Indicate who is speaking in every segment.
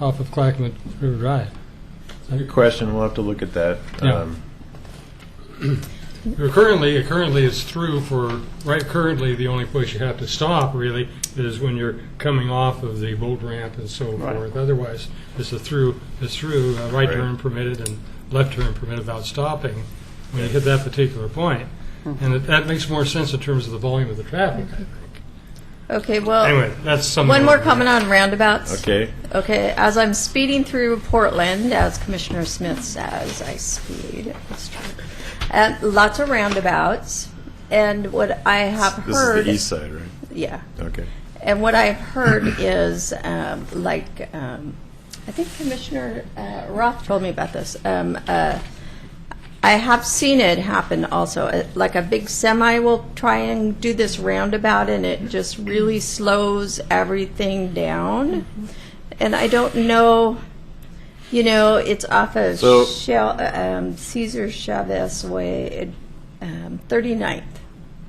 Speaker 1: off of Clackamas River Drive.
Speaker 2: Good question, we'll have to look at that.
Speaker 1: Yeah.
Speaker 2: Um,
Speaker 1: Currently, currently it's through for, right currently, the only place you have to stop really is when you're coming off of the boat ramp and so
Speaker 3: Right.
Speaker 1: forth. Otherwise, it's a through, it's through, uh, right
Speaker 2: Right.
Speaker 1: turn permitted and left turn permitted without stopping when you hit that particular point. And that- that makes more sense in terms of the volume of the traffic.
Speaker 4: Okay, well,
Speaker 1: Anyway, that's something.
Speaker 4: one more
Speaker 1: that-
Speaker 4: comment on roundabouts.
Speaker 2: Okay,
Speaker 4: Okay, as I'm speeding through Portland, as Commissioner Smith says, I speed. It's true. And lots of roundabouts, and what I have
Speaker 2: this is
Speaker 4: heard,
Speaker 2: the east side, right?
Speaker 4: yeah,
Speaker 2: Okay.
Speaker 4: and what I've heard is um, like um, I think Commissioner uh, Roth told me about this. Um, uh, I have seen it happen also. Uh, Like a big semi will try and do this roundabout, and it just really slows everything down. And I don't know, you know, it's off of
Speaker 2: So-
Speaker 4: Shell, uh, um, Caesar Chavez Way, um, 39th.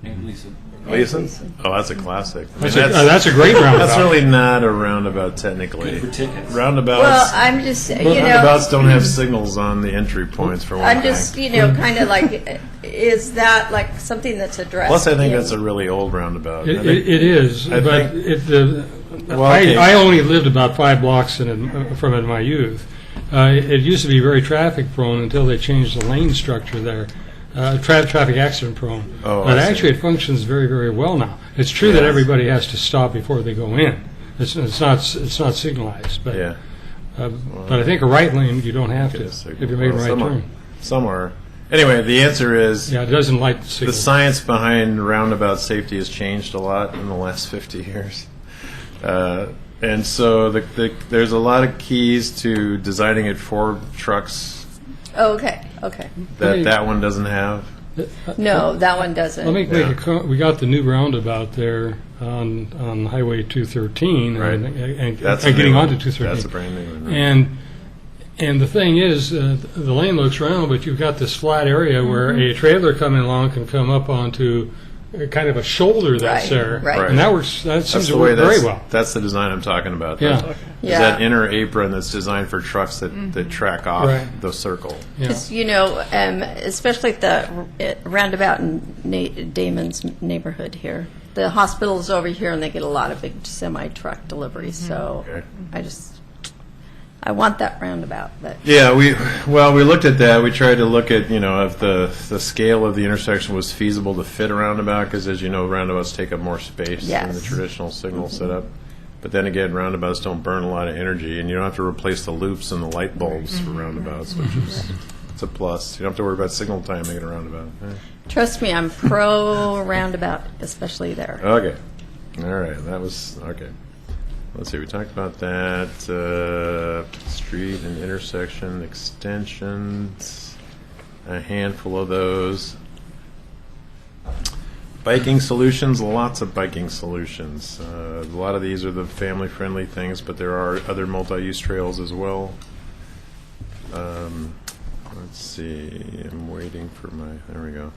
Speaker 5: And Lisa.
Speaker 2: Leeson? Oh, that's a classic. I mean,
Speaker 1: That's a- uh, That's a great roundabout.
Speaker 2: That's really not a roundabout technically.
Speaker 5: For tickets.
Speaker 4: Well,
Speaker 2: Roundabouts,
Speaker 4: I'm just, you know.
Speaker 2: roundabouts don't have signals on the entry points for one
Speaker 4: I'm just,
Speaker 2: thing.
Speaker 4: you know, kind of like, is that like something that's addressed?
Speaker 2: Plus, I think
Speaker 4: in-
Speaker 2: that's a really old roundabout. I
Speaker 1: It,
Speaker 2: think-
Speaker 1: it, it is,
Speaker 2: I
Speaker 1: but
Speaker 2: think-
Speaker 1: it, the,
Speaker 2: Well,
Speaker 1: I,
Speaker 2: okay.
Speaker 1: I only lived about five blocks in, it- from it in my youth. Uh, it, it used to be very traffic prone until they changed the lane structure there. Uh, tra- traffic accident prone.
Speaker 2: Oh, I
Speaker 1: but
Speaker 2: see.
Speaker 1: actually, it functions very, very well now. It's true that
Speaker 2: Yes.
Speaker 1: everybody has to stop before they go in. It's, it's not it's not signalized, but
Speaker 2: Yeah.
Speaker 1: uh, but I think a right lane you don't have to
Speaker 2: Okay,
Speaker 1: if
Speaker 2: so-
Speaker 1: you're making a
Speaker 2: well,
Speaker 1: right
Speaker 2: some are-
Speaker 1: turn.
Speaker 2: Some are. Anyway, the answer is
Speaker 1: Yeah, it doesn't light the signal.
Speaker 2: The science behind roundabout safety has changed a lot in the last 50 years. Uh, and so the, the, there's a lot of keys to designing it for trucks
Speaker 4: Oh, okay, okay.
Speaker 2: that
Speaker 1: Hey.
Speaker 2: that one doesn't have.
Speaker 4: No, that one doesn't.
Speaker 1: Let me
Speaker 2: Yeah.
Speaker 1: make a co- we got the new roundabout there on, on Highway 213.
Speaker 2: Right.
Speaker 1: And, and-
Speaker 2: That's
Speaker 1: and
Speaker 2: a
Speaker 1: getting
Speaker 2: new
Speaker 1: onto
Speaker 2: one.
Speaker 1: 213.
Speaker 2: That's a brand new one. right.
Speaker 1: And, and the thing is, uh, the lane looks round, but you've got this flat area where
Speaker 4: Mm-hmm.
Speaker 1: a trailer coming along can come up onto uh, kind of a shoulder that's
Speaker 4: Right,
Speaker 1: there.
Speaker 4: right.
Speaker 1: And that works, that seems
Speaker 2: that's
Speaker 1: to
Speaker 2: the way.
Speaker 1: work
Speaker 2: That's,
Speaker 1: very well.
Speaker 2: that's the design I'm talking about.
Speaker 1: Yeah.
Speaker 2: That's-
Speaker 4: Yeah.
Speaker 2: Is that inner apron that's designed for trucks that, that track off
Speaker 1: Right.
Speaker 2: the circle?
Speaker 1: Yeah.
Speaker 4: Just, you know, um, especially at the uh, roundabout in Na- Damon's neighborhood here. The hospital's over here, and they get a lot of big semi truck deliveries.
Speaker 1: Mm-hmm.
Speaker 4: So
Speaker 2: Okay.
Speaker 4: I just, I want that roundabout, but
Speaker 2: Yeah, we well, we looked at that. We tried to look at you know if the the scale of the intersection was feasible to fit a roundabout because, as you know, roundabouts take up more space than the
Speaker 4: Yes.
Speaker 2: traditional signal setup. But then again, roundabouts don't burn a lot of energy, and you don't have to replace the loops and the light bulbs for roundabouts, which is it's a plus. You don't have to worry about signal timing at a roundabout. Eh.
Speaker 4: trust me, I'm pro roundabout, especially there.
Speaker 2: Okay, all right, that was okay. Let's see, we talked about that uh, street and intersection extensions. a handful of those. Biking solutions, lots of biking solutions. Uh, a lot of these are the family friendly things, but there are other multi use trails as well. Um, let's see, I'm waiting for my. There we go.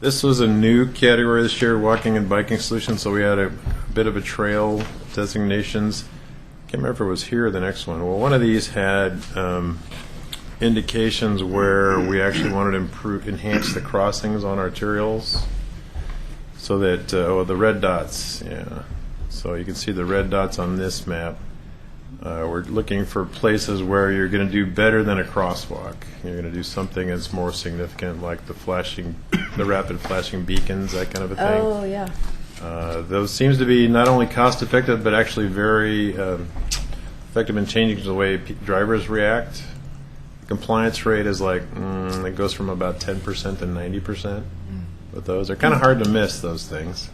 Speaker 2: This was a new category this year, walking and biking solutions, so we had a bit of a trail designations. Can't remember if it was here or the next one. Well, one of these had um, indications where we actually wanted to improve, enhance the crossings on arterials, so that, uh, oh, the red dots, yeah. So you can see the red dots on this map. Uh, We're looking for places where you're going to do better than a crosswalk. You're going to do something that's more significant, like the flashing, the rapid flashing beacons, that kind of a thing.
Speaker 4: Oh yeah.
Speaker 2: Uh, Those seems to be not only cost-effective, but actually very um, effective in changing the way pe- drivers react. Compliance rate is like, mm, it goes from about 10% to 90% with those. They're kind of hard to miss, those things.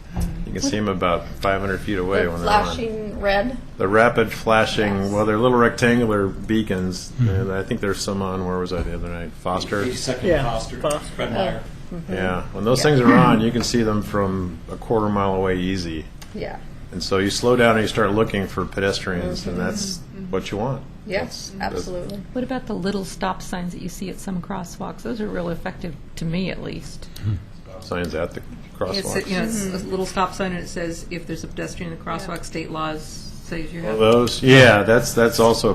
Speaker 2: You can see them about 500 feet away
Speaker 4: The
Speaker 2: when they're on.
Speaker 4: flashing red.
Speaker 2: The rapid flashing,
Speaker 4: Yes.
Speaker 2: well, they're little rectangular beacons, and I think there's some on, where was I the other night? Foster?
Speaker 5: Eighty-second
Speaker 3: Yeah,
Speaker 5: Foster,
Speaker 3: Foster.
Speaker 5: Fred Meyer.
Speaker 2: Yeah, when those things are on, you can see them from a quarter mile away easy.
Speaker 4: Yeah.
Speaker 2: And so you slow down and you start looking for pedestrians, and
Speaker 6: Mm-hmm.
Speaker 2: that's what you want.
Speaker 4: Yes, absolutely.
Speaker 7: What about the little stop signs that you see at some crosswalks? Those are real effective, to me at least.
Speaker 2: Signs at the
Speaker 6: It's,
Speaker 2: crosswalks.
Speaker 6: a- you know, it's a little stop sign, and it says, if there's a pedestrian in the crosswalk, state laws says you have.
Speaker 2: Those, yeah, that's that's also a